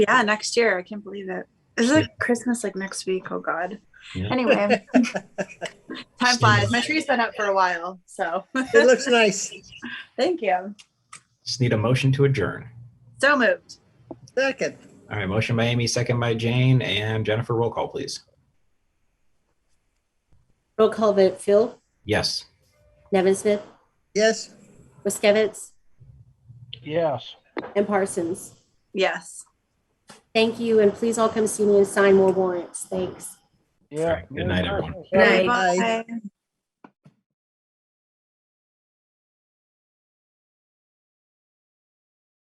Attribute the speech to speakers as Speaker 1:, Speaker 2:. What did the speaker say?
Speaker 1: Yeah, next year. I can't believe it. Is it Christmas like next week? Oh God.
Speaker 2: Yeah.
Speaker 1: Anyway, time
Speaker 2: Same.
Speaker 1: flies. My tree's been up for a while, so
Speaker 3: It looks nice.
Speaker 1: thank you.
Speaker 2: Just need a motion to adjourn.
Speaker 1: So moved.
Speaker 3: Second,
Speaker 2: All right, motion by Amy, second by Jane and Jennifer. Roll call, please.
Speaker 4: Roll call vote, Phil,
Speaker 2: Yes.
Speaker 4: Nevin Smith,
Speaker 3: yes.
Speaker 4: Riskevitz,
Speaker 5: Yes.
Speaker 4: and Parsons.
Speaker 1: Yes.
Speaker 4: Thank you, and please all come see me and sign more warrants. Thanks.
Speaker 5: Yeah.
Speaker 2: Good night, everyone.
Speaker 1: Good
Speaker 3: Bye.
Speaker 1: night.